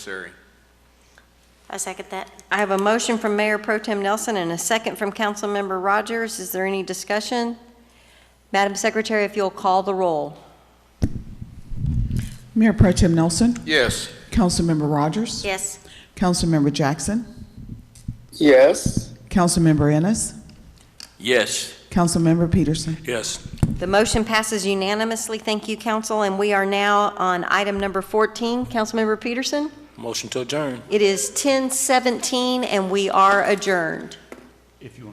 necessary. I second that. I have a motion from Mayor Pro Tem Nelson and a second from Councilmember Rogers. Is there any discussion? Madam Secretary, if you'll call the roll. Mayor Pro Tem Nelson, Yes. Councilmember Rogers, Yes. Councilmember Jackson, Yes. Councilmember Ennis, Yes. Councilmember Peterson. Yes. The motion passes unanimously. Thank you, council, and we are now on item number 14. Councilmember Peterson? Motion to adjourn. It is 10:17, and we are adjourned.